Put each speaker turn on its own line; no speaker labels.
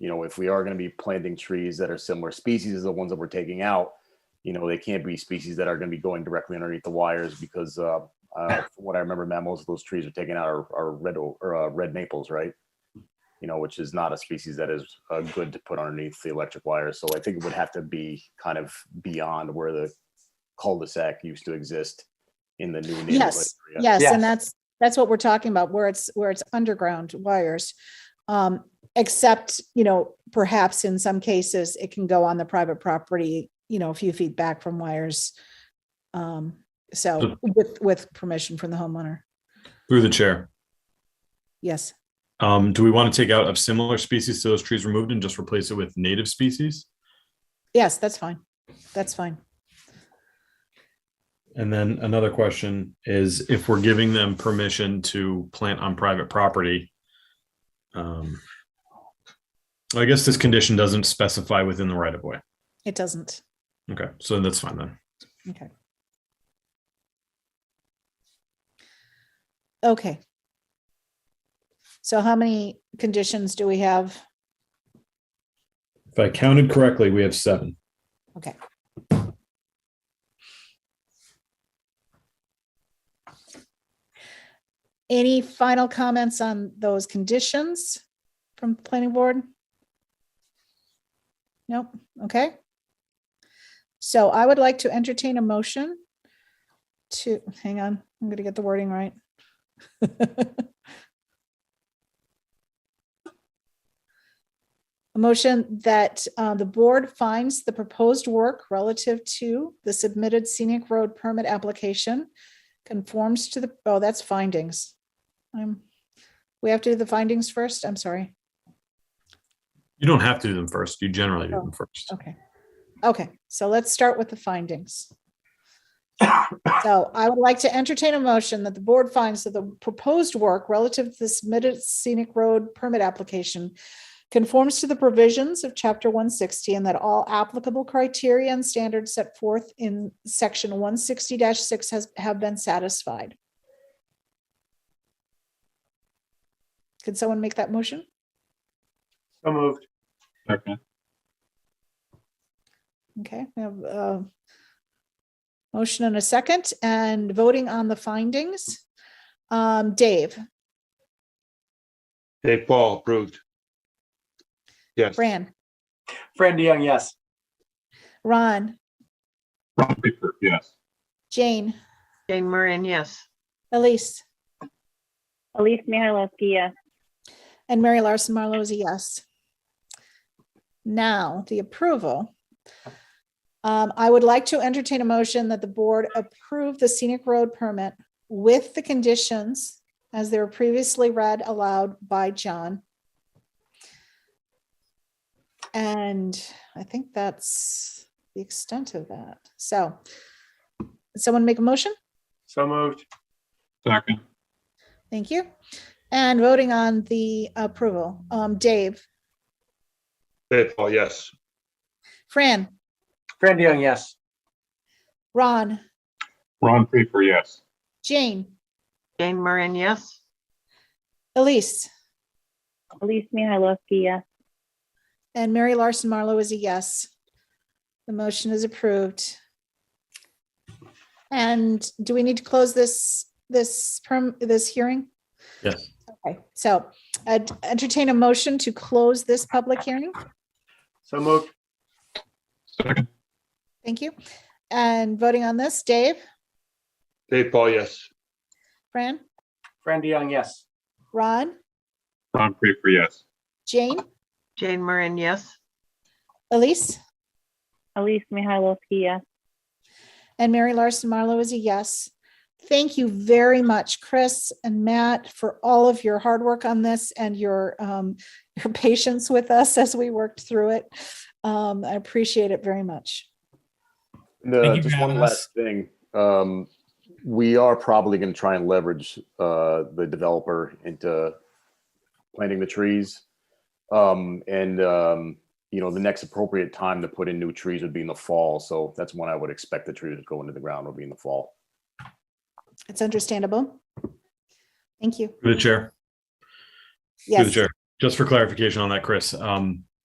you know, if we are going to be planting trees that are similar species as the ones that we're taking out, you know, they can't be species that are going to be going directly underneath the wires because, uh, uh, from what I remember, now most of those trees are taken out are, are red o- or uh, red maples, right? You know, which is not a species that is uh, good to put underneath the electric wires. So I think it would have to be kind of beyond where the cul-de-sac used to exist in the new neighborhood
Yes,
area.
yes,
Yes.
and that's, that's what we're talking about, where it's, where it's underground wires. Um, except, you know, perhaps in some cases, it can go on the private property, you know, a few feet back from wires. Um, so with, with permission from the homeowner,
Through the chair.
yes.
Um, do we want to take out of similar species to those trees removed and just replace it with native species?
Yes, that's fine. That's fine.
And then another question is if we're giving them permission to plant on private property. Um, I guess this condition doesn't specify within the right of way.
It doesn't.
Okay, so that's fine then.
Okay. Okay. So how many conditions do we have?
If I counted correctly, we have seven.
Okay. Any final comments on those conditions from the planning board? Nope, okay. So I would like to entertain a motion to, hang on, I'm gonna get the wording right. A motion that uh, the board finds the proposed work relative to the submitted scenic road permit application conforms to the, oh, that's findings. I'm, Um, we have to do the findings first? I'm sorry.
You don't have to do them first. You generally do them first.
Okay. Okay, so let's start with the findings. So I would like to entertain a motion that the board finds that the proposed work relative to the submitted scenic road permit application conforms to the provisions of chapter one sixty and that all applicable criteria and standards set forth in section one sixty six has, have been satisfied. Could someone make that motion?
So moved.
Okay, we have a motion and a second and voting on the findings. Um, Dave,
Dave Paul, approved. Yes.
Fran,
Fran DeYoung, yes.
Ron,
Ron Bickford, yes.
Jane,
Jane Moran, yes.
Elise,
Elise Mihailovsky, yes.
and Mary Larson Marlowe is a yes. Now, the approval. Um, I would like to entertain a motion that the board approve the scenic road permit with the conditions as they were previously read aloud by John. And I think that's the extent of that. So someone make a motion?
So moved.
Second,
Thank you. And voting on the approval, um, Dave,
Dave Paul, yes.
Fran,
Fran DeYoung, yes.
Ron,
Ron Bickford, yes.
Jane,
Jane Moran, yes.
Elise,
Elise Mihailovsky, yes.
and Mary Larson Marlowe is a yes. The motion is approved. And do we need to close this, this perm, this hearing?
Yes.
Okay, so I'd entertain a motion to close this public hearing.
So moved.
Second,
Thank you. And voting on this, Dave,
Dave Paul, yes.
Fran,
Fran DeYoung, yes.
Ron,
Ron Bickford, yes.
Jane,
Jane Moran, yes.
Elise?
Elise Mihailovsky, yes.
And Mary Larson Marlowe is a yes. Thank you very much, Chris and Matt, for all of your hard work on this and your um, your patience with us as we worked through it. Um, I appreciate it very much.
And, uh,
Thank you for
just one
having
last thing. Um, we are probably going to try and leverage uh, the developer into planting the trees. Um, and um, you know, the next appropriate time to put in new trees would be in the fall. So that's when I would expect the trees to go into the ground would be in the fall.
It's understandable. Thank you.
Through the chair. Through the
Yes,
chair. Just for clarification on that, Chris, um,